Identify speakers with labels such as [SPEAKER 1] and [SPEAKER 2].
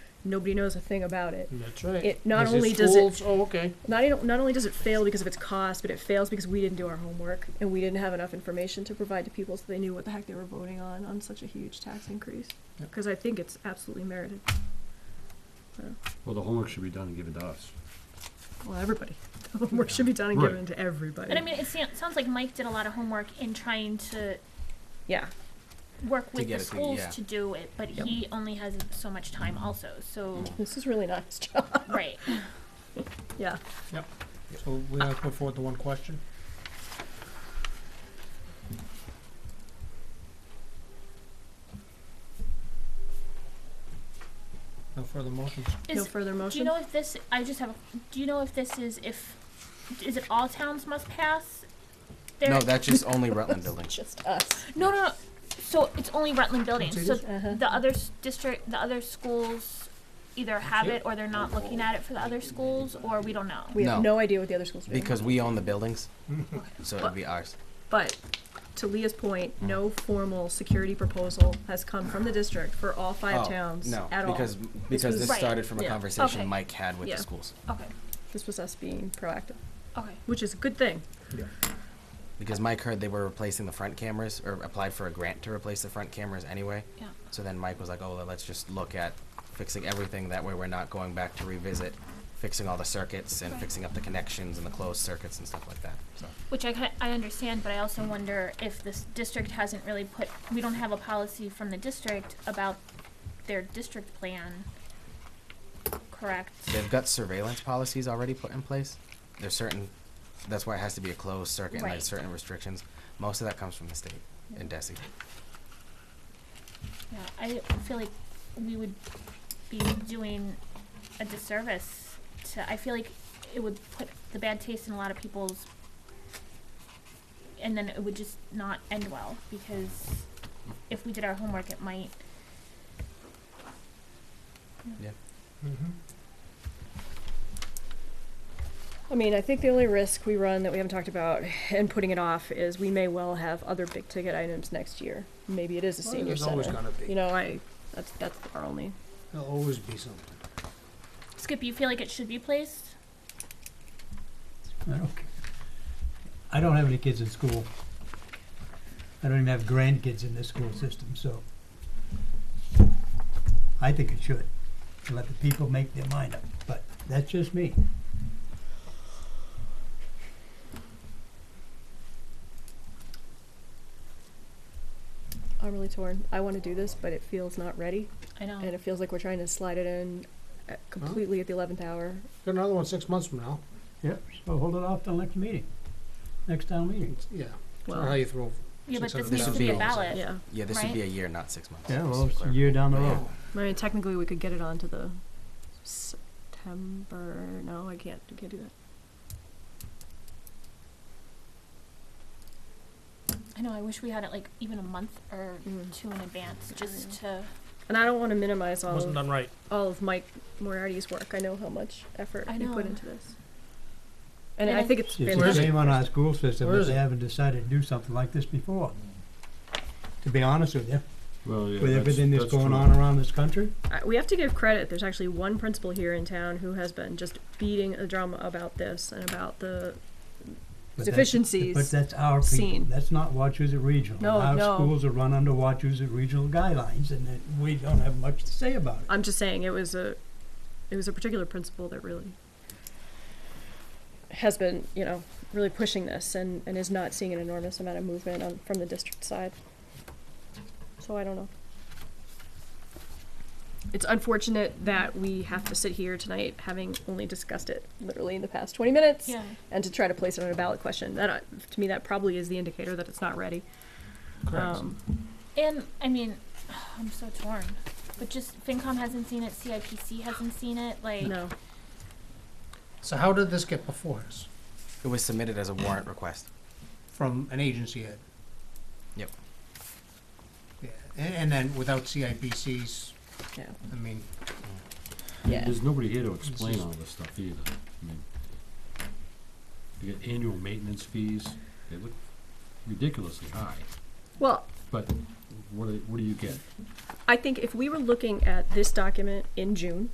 [SPEAKER 1] nobody knows a thing about it.
[SPEAKER 2] That's right.
[SPEAKER 1] It not
[SPEAKER 2] Is
[SPEAKER 1] only does it-
[SPEAKER 2] schools? Oh, okay.
[SPEAKER 1] Not, e- not only does it fail because of its cost, but it fails because we didn't do our homework and we didn't have enough information to provide to people so they knew what the heck they were voting on on such a huge tax increase.
[SPEAKER 2] Yeah.
[SPEAKER 1] Because I think it's absolutely merited.
[SPEAKER 3] Well, the homework should be done and given to us.
[SPEAKER 1] Well, everybody. The homework should be done and
[SPEAKER 3] Right.
[SPEAKER 1] given to everybody.
[SPEAKER 4] And I mean, it sa- sounds like Mike did a lot of homework in trying to
[SPEAKER 1] yeah.
[SPEAKER 4] work with
[SPEAKER 5] get
[SPEAKER 4] the
[SPEAKER 5] it to-
[SPEAKER 4] schools
[SPEAKER 5] yeah. Mm-hmm.
[SPEAKER 4] to do it, but
[SPEAKER 1] Yep.
[SPEAKER 4] he only has so much time also, so,
[SPEAKER 1] This is really not his job.
[SPEAKER 4] right.
[SPEAKER 1] Yeah.
[SPEAKER 2] So we have to put forward the one question. No further motions.
[SPEAKER 1] no
[SPEAKER 4] Is,
[SPEAKER 1] further motion.
[SPEAKER 4] do you know if this, I just have, a do you know if this is if, is it all towns must pass? their-
[SPEAKER 5] No, that's just only Rutland buildings.
[SPEAKER 1] Just us.
[SPEAKER 4] No, no, no, so it's only Rutland buildings, so
[SPEAKER 1] Uh-huh.
[SPEAKER 4] the other s- district, the other schools either have it or they're not looking at it for the other schools, or we don't know.
[SPEAKER 1] We have
[SPEAKER 5] No.
[SPEAKER 1] no idea what the other schools are doing.
[SPEAKER 5] Because we own the buildings, so it'd be ours.
[SPEAKER 1] But to Leah's point,
[SPEAKER 5] Mm.
[SPEAKER 1] no formal security proposal has come from the district for all five
[SPEAKER 5] Oh,
[SPEAKER 1] towns
[SPEAKER 5] No,
[SPEAKER 1] at
[SPEAKER 5] because,
[SPEAKER 1] all.
[SPEAKER 5] because
[SPEAKER 1] was-
[SPEAKER 5] this
[SPEAKER 4] Right,
[SPEAKER 5] started from a
[SPEAKER 1] yeah.
[SPEAKER 5] conversation
[SPEAKER 4] Okay.
[SPEAKER 5] Mike had with
[SPEAKER 1] Yeah.
[SPEAKER 5] the schools.
[SPEAKER 4] Okay,
[SPEAKER 1] This was us being proactive,
[SPEAKER 4] okay.
[SPEAKER 1] which is a good thing.
[SPEAKER 5] Because Mike heard they were replacing the front cameras, or applied for a grant to replace the front cameras anyway.
[SPEAKER 4] Yeah.
[SPEAKER 5] So then Mike was like, oh, well, let's just look at fixing everything, that way we're not going back to revisit fixing all the circuits and
[SPEAKER 4] Right.
[SPEAKER 5] fixing up the connections and the closed circuits and stuff like that, so.
[SPEAKER 4] Which I, ki- I understand, but I also wonder if this district hasn't really put, we don't have a policy from the district about their district plan, correct?
[SPEAKER 5] They've got surveillance policies already put in place. There's certain, that's why it has to be a closed circuit and
[SPEAKER 4] Right.
[SPEAKER 5] there's certain restrictions. Most of that comes from the state and DESI.
[SPEAKER 4] Yeah, I feel like we would be doing a disservice to, I feel like it would put the bad taste in a lot of people's, and then it would just not end well, because if we did our homework, it might,
[SPEAKER 2] Mm-hmm.
[SPEAKER 1] I mean, I think the only risk we run that we haven't talked about and putting it off is we may well have other big ticket items next year. Maybe it is a senior
[SPEAKER 2] There's always
[SPEAKER 1] center.
[SPEAKER 2] gonna
[SPEAKER 1] You
[SPEAKER 2] be,
[SPEAKER 1] know, I, that's, that's our only,
[SPEAKER 2] there'll always be something.
[SPEAKER 4] Skip, you feel like it should be placed?
[SPEAKER 6] I don't, ca- I don't have any kids in school. I don't even have grandkids in this school system, so I think it should. Let the people make their mind up, but that's just me.
[SPEAKER 1] I'm really torn. I want to do this, but it feels not ready.
[SPEAKER 4] I know.
[SPEAKER 1] And it feels like we're trying to slide it in uh, completely at the eleventh hour.
[SPEAKER 2] Got another one six months from now.
[SPEAKER 6] Yep. So hold it off till next meeting, next town meeting.
[SPEAKER 2] It's- Yeah, It's not
[SPEAKER 1] Well-
[SPEAKER 2] how you throw.
[SPEAKER 4] Yeah, but
[SPEAKER 2] Six
[SPEAKER 4] this
[SPEAKER 2] of
[SPEAKER 4] needs
[SPEAKER 5] them.
[SPEAKER 4] to be a
[SPEAKER 5] Should be.
[SPEAKER 4] ballot.
[SPEAKER 1] Yeah.
[SPEAKER 5] Yeah, this would be a
[SPEAKER 4] Right.
[SPEAKER 5] year, not six months.
[SPEAKER 6] Yeah,
[SPEAKER 5] just
[SPEAKER 6] well, it's a
[SPEAKER 5] clear.
[SPEAKER 6] year down the road.
[SPEAKER 1] I mean, technically, we could get it onto the September, no, I can't, I can't do that.
[SPEAKER 4] I know, I wish we had it like even a month or
[SPEAKER 1] Mm.
[SPEAKER 4] two in advance, just to,
[SPEAKER 1] And I don't wanna minimize all
[SPEAKER 2] Wasn't
[SPEAKER 1] of,
[SPEAKER 2] done right.
[SPEAKER 1] all of Mike Moriarty's work, I know how much effort
[SPEAKER 4] I
[SPEAKER 1] he put
[SPEAKER 4] know.
[SPEAKER 1] into this. And
[SPEAKER 4] And
[SPEAKER 1] I
[SPEAKER 4] I-
[SPEAKER 1] think it's
[SPEAKER 6] It's a
[SPEAKER 2] Where's it?
[SPEAKER 1] fantastic,
[SPEAKER 6] shame on our school system
[SPEAKER 2] Where
[SPEAKER 6] that
[SPEAKER 2] is
[SPEAKER 6] they
[SPEAKER 2] it?
[SPEAKER 6] haven't decided to do something like this before. To be honest with you,
[SPEAKER 3] Well, yeah.
[SPEAKER 6] with
[SPEAKER 3] that's-
[SPEAKER 6] everything that's
[SPEAKER 3] that's
[SPEAKER 6] going
[SPEAKER 3] true.
[SPEAKER 6] on around this country,
[SPEAKER 1] I- Uh, we have to give credit, there's actually one principal here in town who has been just beating a drum about this and about the
[SPEAKER 6] but that's But
[SPEAKER 1] deficiencies.
[SPEAKER 6] that's our people,
[SPEAKER 1] seen.
[SPEAKER 6] that's not Wachusett Regional.
[SPEAKER 1] No, no.
[SPEAKER 6] Our schools are run under Wachusett Regional guidelines, and that we don't have much to say about it.
[SPEAKER 1] I'm just saying, it was a, it was a particular principal that really has been, you know, really pushing this and, and is not seeing an enormous amount of movement on, from the district side. So I don't know. It's unfortunate that we have to sit here tonight having only discussed it literally in the past twenty minutes
[SPEAKER 4] yeah.
[SPEAKER 1] and to try to place it on a ballot question. That, uh, to me, that probably is the indicator that it's not ready. Um,
[SPEAKER 4] And, I mean, I'm so torn, but just FinCom hasn't seen it, CIPC hasn't seen it, like,
[SPEAKER 1] no,
[SPEAKER 2] So how did this get before us?
[SPEAKER 5] It was submitted as a warrant request.
[SPEAKER 2] From an agency head?
[SPEAKER 5] Yep.
[SPEAKER 2] Yeah, and, and then without CIPC's,
[SPEAKER 1] yeah,
[SPEAKER 2] I mean,
[SPEAKER 1] yeah.
[SPEAKER 3] There's nobody here to explain
[SPEAKER 2] just-
[SPEAKER 3] all this stuff either. I mean, you get annual maintenance fees, they look ridiculously high,
[SPEAKER 1] Well,
[SPEAKER 3] but what do, what do you get?
[SPEAKER 1] I think if we were looking at this document in June,